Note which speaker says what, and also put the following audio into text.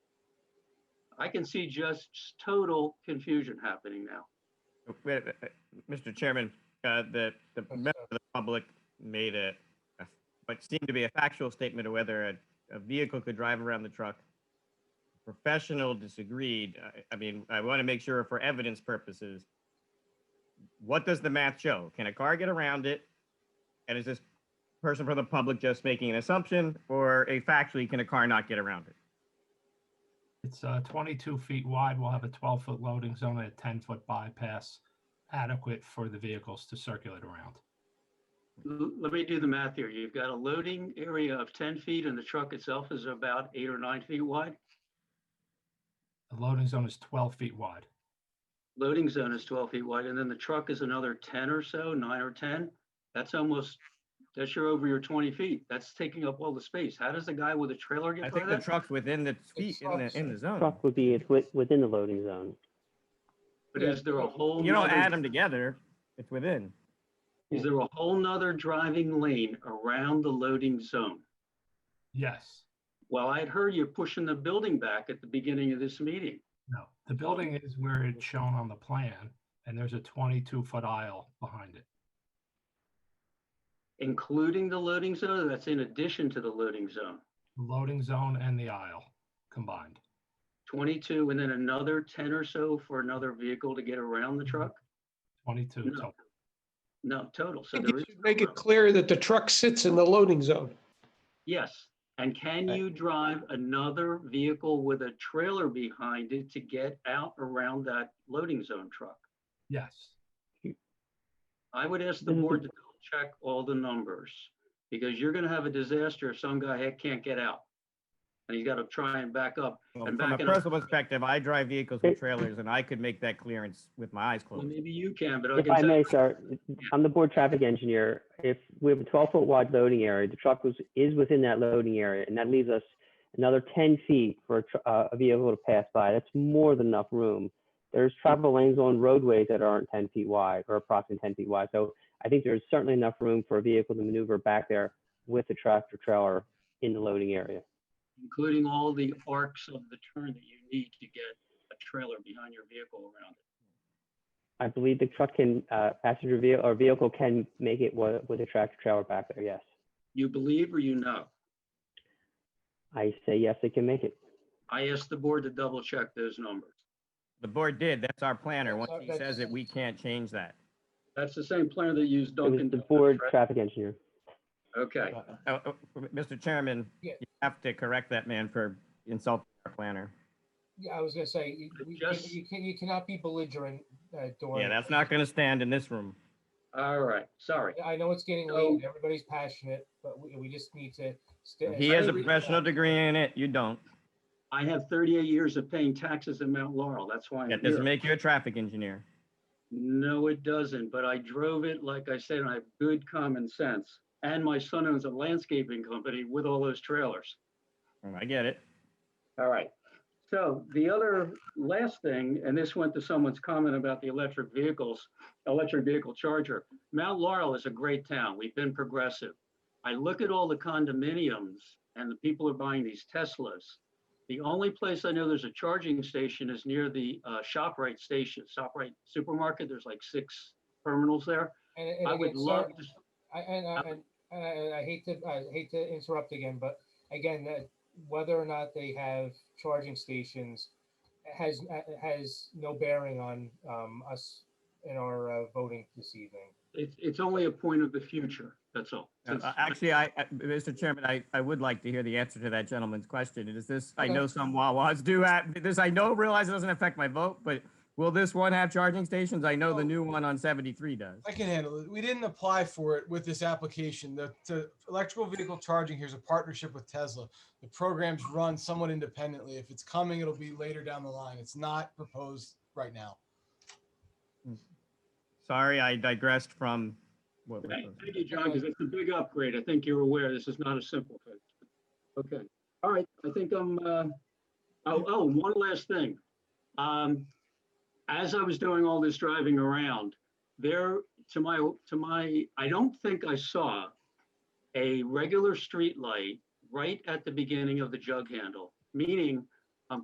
Speaker 1: I can see just total confusion happening now.
Speaker 2: Wait, uh, Mr. Chairman, uh, the, the member of the public made a, a- what seemed to be a factual statement of whether a, a vehicle could drive around the truck. Professional disagreed. I, I mean, I want to make sure for evidence purposes. What does the math show? Can a car get around it? And is this person from the public just making an assumption or a factually, can a car not get around it?
Speaker 3: It's uh, 22 feet wide. We'll have a 12-foot loading zone and a 10-foot bypass adequate for the vehicles to circulate around.
Speaker 1: L- Let me do the math here. You've got a loading area of 10 feet and the truck itself is about eight or nine feet wide.
Speaker 3: The loading zone is 12 feet wide.
Speaker 1: Loading zone is 12 feet wide and then the truck is another 10 or so, nine or 10. That's almost, that's your over your 20 feet. That's taking up all the space. How does the guy with a trailer
Speaker 2: I
Speaker 1: get by
Speaker 2: think the
Speaker 1: that?
Speaker 2: truck's within the, speed- in the, in the zone.
Speaker 4: Truck would be wi- within the loading zone.
Speaker 1: But is there a whole?
Speaker 2: You don't
Speaker 1: nother-
Speaker 2: add them together, it's within.
Speaker 1: Is there a whole nother driving lane around the loading zone?
Speaker 3: Yes.
Speaker 1: Well, I had heard you pushing the building back at the beginning of this meeting.
Speaker 3: No. The building is where it's shown on the plan, and there's a 22-foot aisle behind it.
Speaker 1: Including the loading zone, or that's in addition to the loading zone.
Speaker 3: The Loading zone and the aisle combined.
Speaker 1: 22 and then another 10 or so for another vehicle to get around the truck?
Speaker 3: 22
Speaker 1: No.
Speaker 3: total.
Speaker 1: No, total. So
Speaker 5: think
Speaker 1: there
Speaker 5: you
Speaker 1: is.
Speaker 5: should Make it
Speaker 1: room.
Speaker 5: clear that the truck sits in the loading zone.
Speaker 1: Yes. And can you drive another vehicle with a trailer behind it to get out around that loading zone truck?
Speaker 3: Yes.
Speaker 1: I would ask the
Speaker 4: Then we
Speaker 1: board to
Speaker 5: Mm-hmm.
Speaker 1: double check all the numbers because you're going to have a disaster if some guy heck can't get out. And he's got to try and back up.
Speaker 2: Well,
Speaker 1: and
Speaker 2: From a
Speaker 1: backing up.
Speaker 2: personal perspective, I drive vehicles with trailers and I could make that clearance with my eyes
Speaker 1: Well,
Speaker 2: closed.
Speaker 1: maybe you can, but I
Speaker 4: If
Speaker 1: can
Speaker 4: I
Speaker 1: tell,
Speaker 4: may, sir, I'm the board traffic engineer. If we have a 12-foot wide loading area, the truck was, is within that loading area, and that leaves us another 10 feet for a tr- uh, a vehicle to pass by. That's more than enough room. There's travel lanes on roadways that aren't 10 feet wide or approximately 10 feet wide. So I think there's certainly enough room for a vehicle to maneuver back there with a tractor trailer in the loading area.
Speaker 1: including all the arcs of the turn that you need to get a trailer behind your vehicle around it.
Speaker 4: I believe the truck can, uh, passenger vehicle or vehicle can make it wa- with a tractor trailer back there, yes.
Speaker 1: You believe or you know?
Speaker 4: I say yes, it can make it.
Speaker 1: I asked the board to double check those numbers.
Speaker 2: The board did, that's our planner.
Speaker 5: That's
Speaker 2: Once
Speaker 5: our-
Speaker 2: he says it, we can't change that.
Speaker 1: That's the same plan that used
Speaker 4: It was
Speaker 1: Duncan.
Speaker 4: the
Speaker 1: Donuts,
Speaker 4: board
Speaker 1: right?
Speaker 4: traffic engineer.
Speaker 1: Okay,
Speaker 2: Uh, uh, Mr. Chairman,
Speaker 5: Uh-uh. Yeah.
Speaker 2: you have to correct that man for insulting our planner.
Speaker 5: Yeah, I was gonna say, you,
Speaker 1: we- you- Just- you
Speaker 5: can, you cannot be belligerent, uh,
Speaker 2: Yeah, that's not gonna stand in this room.
Speaker 1: all right, sorry.
Speaker 5: I know it's getting
Speaker 1: late, and
Speaker 5: everybody's passionate, but we, we just need to.
Speaker 2: He has a professional degree in it, you don't.
Speaker 1: I have 38 years of paying taxes in Mount Laurel. That's why I'm
Speaker 2: That doesn't
Speaker 1: here.
Speaker 2: make you a traffic engineer.
Speaker 1: No, it doesn't, but I drove it, like I said, and I have good common sense. And my son owns a landscaping company with all those trailers.
Speaker 2: Oh, I get it.
Speaker 1: All right. So the other last thing, and this went to someone's comment about the electric vehicles, electric vehicle charger. Mount Laurel is a great town. We've been progressive. I look at all the condominiums and the people are buying these Teslas. The only place I know there's a charging station is near the uh, ShopRite station, ShopRite supermarket. There's like six terminals there. I would love to
Speaker 5: I, and, I- and, and I, and I hate to, I hate to interrupt again, but again, that whether or not they have charging stations has, has no bearing on, um, us in our, uh, voting this evening.
Speaker 1: It's, it's only a point of the future, that's all.
Speaker 2: Uh,
Speaker 1: Since-
Speaker 2: Actually, I, I- Mr. Chairman, I, I would like to hear the answer to that gentleman's question. Is this, I
Speaker 5: Okay.
Speaker 2: know some Wawas do have, this, I know, realize it doesn't affect my vote, but will this one have charging stations? I know the
Speaker 6: No.
Speaker 2: new one on 73 does.
Speaker 6: I can handle it. We didn't apply for it with this application. The, the electrical vehicle charging here is a partnership with Tesla. The program's run somewhat independently. If it's coming, it'll be later down the line. It's not proposed right now.
Speaker 2: Sorry, I digressed from what was
Speaker 1: Thank thank you, John, because it's a big upgrade. I think you're aware this is not a simple thing. Okay, all right, I think I'm, uh, oh, oh, one last thing. Um, as I was doing all this driving around, there, to my, to my, I don't think I saw a regular street light right at the beginning of the jug handle, meaning